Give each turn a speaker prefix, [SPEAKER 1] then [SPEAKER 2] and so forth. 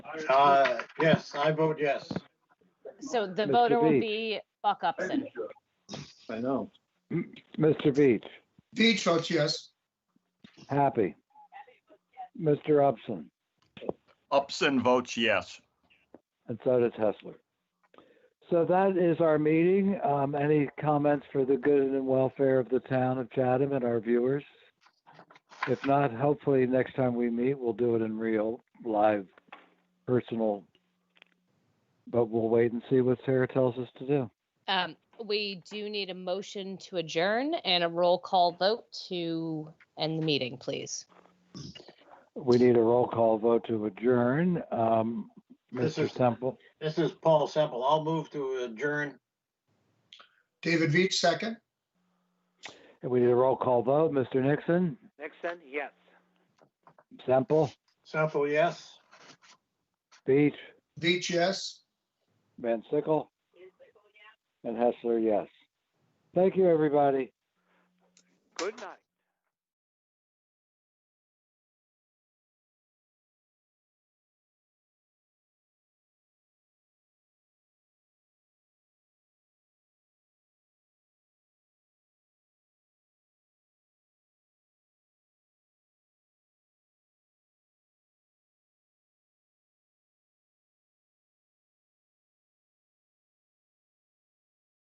[SPEAKER 1] Uh, yes, I vote yes.
[SPEAKER 2] So the
[SPEAKER 3] Mr.
[SPEAKER 2] voter will
[SPEAKER 3] Beach.
[SPEAKER 2] be Buck Upson.
[SPEAKER 3] I know. Mr. Beach,
[SPEAKER 4] Beach votes yes.
[SPEAKER 3] happy. Mr. Upson,
[SPEAKER 5] Upson votes yes.
[SPEAKER 3] and so does Hessler. So that is our meeting. Um, any comments for the good and welfare of the town of Chatham and our viewers? If not, hopefully next time we meet, we'll do it in real, live, personal. But we'll wait and see what Sarah tells us to do.
[SPEAKER 2] Um, we do need a motion to adjourn and a roll call vote to end the meeting, please.
[SPEAKER 3] We need a roll call vote to adjourn. Um,
[SPEAKER 1] This
[SPEAKER 3] Mr.
[SPEAKER 1] is-
[SPEAKER 3] Temple,
[SPEAKER 1] This is Paul Semple. I'll move to adjourn.
[SPEAKER 4] David Beach, second.
[SPEAKER 3] we need a roll call vote. Mr. Nixon?
[SPEAKER 6] Nixon, yes.
[SPEAKER 3] Semple,
[SPEAKER 1] Semple, yes.
[SPEAKER 3] Beach,
[SPEAKER 4] Beach, yes.
[SPEAKER 3] Van Sickle, and Hessler, yes. Thank you, everybody.
[SPEAKER 6] Good night.